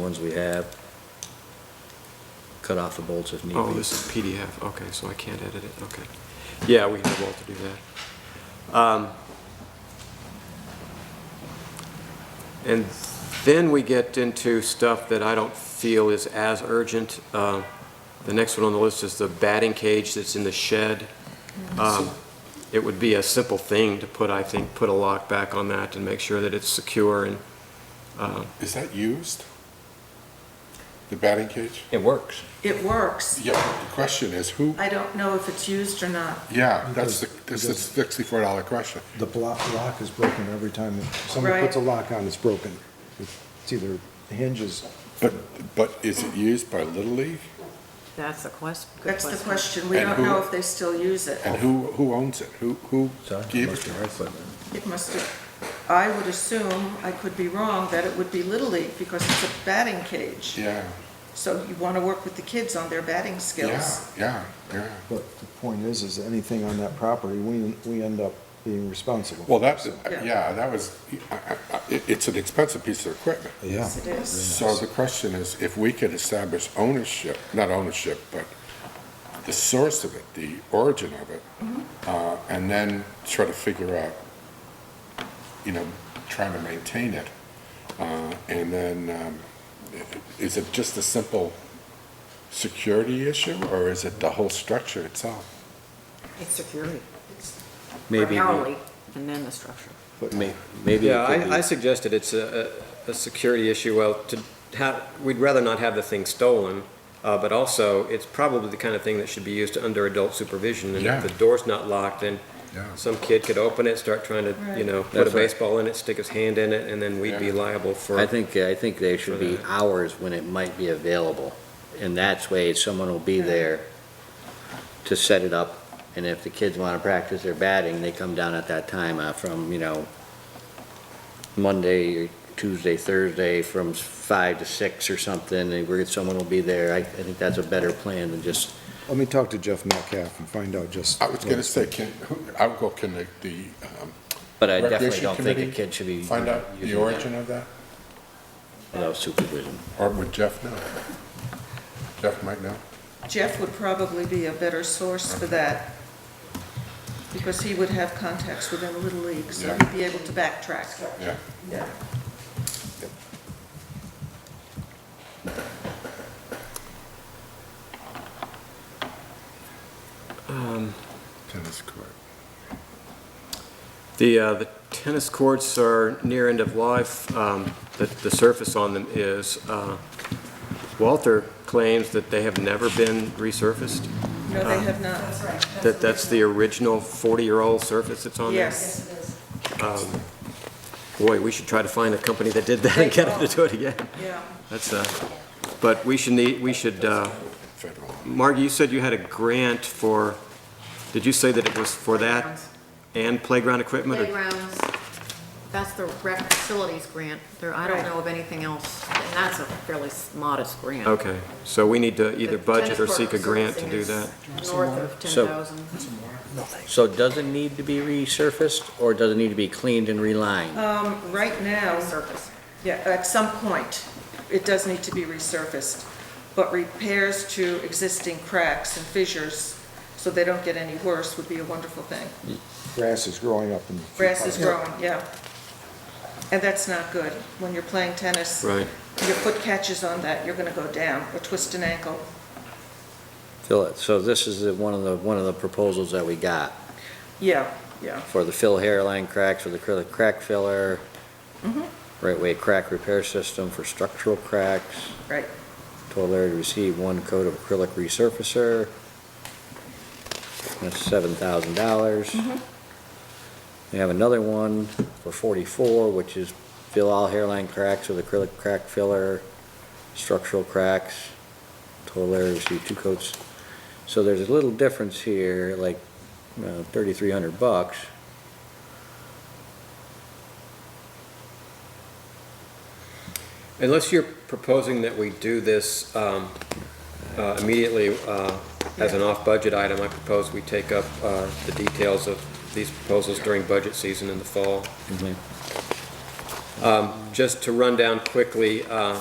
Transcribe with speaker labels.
Speaker 1: ones we have. Cut off the bolts if need
Speaker 2: Oh,
Speaker 1: be.
Speaker 2: this is PDF, okay, so I can't edit it, okay. Yeah, we have all to do that. Um, And then we get into stuff that I don't feel is as urgent. Uh, The next one on the list is the batting cage that's in the shed. Um, It would be a simple thing to put, I think, put a lock back on that and make sure that it's secure and, uh,
Speaker 3: Is that used? The batting cage?
Speaker 1: It works.
Speaker 4: It works.
Speaker 3: Yeah, but the question is who,
Speaker 4: I don't know if it's used or not.
Speaker 3: yeah, that's the, that's the
Speaker 5: Because-
Speaker 3: sixty-four dollar question.
Speaker 5: The block, lock is broken every time, somebody
Speaker 4: Right.
Speaker 5: puts a lock on, it's broken. It's either hinges,
Speaker 3: But, but is it used by Little League?
Speaker 6: That's the question.
Speaker 4: That's the question. We
Speaker 3: And
Speaker 4: don't
Speaker 3: who-
Speaker 4: know if they still use it.
Speaker 3: And who, who owns it? Who, who
Speaker 1: Sorry.
Speaker 3: gave it
Speaker 1: must be
Speaker 3: to
Speaker 1: right,
Speaker 3: us?
Speaker 1: but
Speaker 4: It must have, I would assume, I could be wrong, that it would be Little League because it's a batting cage.
Speaker 3: Yeah,
Speaker 4: So you want to work with the kids on their batting
Speaker 3: yeah,
Speaker 4: skills.
Speaker 3: yeah, yeah.
Speaker 5: but the point is, is anything on that property, we, we end up being responsible.
Speaker 3: Well, that's,
Speaker 4: Yeah.
Speaker 3: yeah, that was, I- I- I- it, it's an expensive piece of equipment.
Speaker 5: Yeah.
Speaker 4: Yes, it is.
Speaker 3: So the question is, if we could establish ownership, not ownership, but the source of it, the origin of it, uh, and then try to figure out, you know, trying to maintain it. uh, And then, um, i- is it just a simple security issue, or is it the whole structure itself?
Speaker 6: It's security.
Speaker 1: Maybe,
Speaker 6: Primarily, and then the structure.
Speaker 1: but may- maybe
Speaker 2: Yeah,
Speaker 1: it could
Speaker 2: I, I
Speaker 1: be,
Speaker 2: suggested it's a, a a security issue, well, to have, we'd rather not have the thing stolen, uh, but also, it's probably the kind of thing that should be used under adult supervision, and
Speaker 3: Yeah.
Speaker 2: if the door's not locked, then
Speaker 3: Yeah.
Speaker 2: some kid could open it, start trying to, you
Speaker 4: Right.
Speaker 2: know, put a
Speaker 1: That's right.
Speaker 2: baseball in it, stick his hand in it, and then we'd be
Speaker 3: Yeah.
Speaker 2: liable for.
Speaker 1: I think, I think there should
Speaker 2: For
Speaker 1: be
Speaker 2: that.
Speaker 1: hours when it might be available. And that's way someone will be there to set it up. And if the kids want to practice their batting, they come down at that time uh, from, you know, Monday, Tuesday, Thursday, from five to six or something, and where someone will be there. I, I think that's a better plan than just
Speaker 5: Let me talk to Jeff Metcalf and find out just.
Speaker 3: I was gonna say, can, who- I would go connect the, um,
Speaker 1: But I definitely
Speaker 3: Recreation
Speaker 1: don't think a
Speaker 3: Committee,
Speaker 1: kid should be.
Speaker 3: find out the
Speaker 1: using
Speaker 3: origin
Speaker 1: that
Speaker 3: of that,
Speaker 1: Without supervision.
Speaker 3: or would Jeff know? Jeff might know?
Speaker 4: Jeff would probably be a better source for that because he would have contacts within Little League, so
Speaker 3: Yeah.
Speaker 4: he'd be able to backtrack.
Speaker 3: Yeah.
Speaker 4: Yeah.
Speaker 3: Tennis court.
Speaker 2: The, uh, the tennis courts are near end of life, um, the, the surface on them is, uh, Walter claims that they have never been resurfaced,
Speaker 4: No, they have not.
Speaker 2: that that's the original forty-year-old surface that's on there.
Speaker 4: Yes.
Speaker 2: Boy, we should try to find a company that did that and get them to do it again.
Speaker 4: Yeah.
Speaker 2: That's, uh, but we should need, we should, uh,
Speaker 3: Federal.
Speaker 2: Margie, you said you had a grant for, did you say that it was for that and playground equipment? or-
Speaker 6: Playgrounds, that's the rec facilities grant. There, I don't
Speaker 4: Right.
Speaker 6: know of anything else, and that's a fairly s- modest grant.
Speaker 2: Okay, so we need to either
Speaker 6: The
Speaker 2: budget or
Speaker 6: tennis
Speaker 2: seek a
Speaker 6: court
Speaker 2: grant to do that.
Speaker 6: servicing is North of
Speaker 1: So-
Speaker 6: 10,000.
Speaker 1: So does it need to be resurfaced or does it need to be cleaned and relined?
Speaker 4: Um, right now,
Speaker 6: Surface.
Speaker 4: Yeah, at some point, it does need to be resurfaced, but repairs to existing cracks and fissures, so they don't get any worse, would be a wonderful thing.
Speaker 5: Grass is growing up and.
Speaker 4: Grass is growing, yeah. And that's not good. When you're playing tennis,
Speaker 2: Right.
Speaker 4: your foot catches on that, you're gonna go down or twist an ankle.
Speaker 1: Fill it. So this is the- one of the, one of the proposals that we got
Speaker 4: Yeah, yeah,
Speaker 1: for the fill hairline cracks, for the acrylic crack filler, right way crack repair system for structural cracks,
Speaker 4: right.
Speaker 1: total area to receive one coat of acrylic resurfacer. That's seven thousand dollars. We have another one for forty-four, which is fill all hairline cracks with acrylic crack filler, structural cracks, total area to receive two coats. So there's a little difference here, like uh, thirty-three hundred bucks.
Speaker 2: Unless you're proposing that we do this um, uh, immediately uh, as an off-budget item, I propose we take up uh, the details of these proposals during budget season Um, in the fall. Just to run down quickly, uh,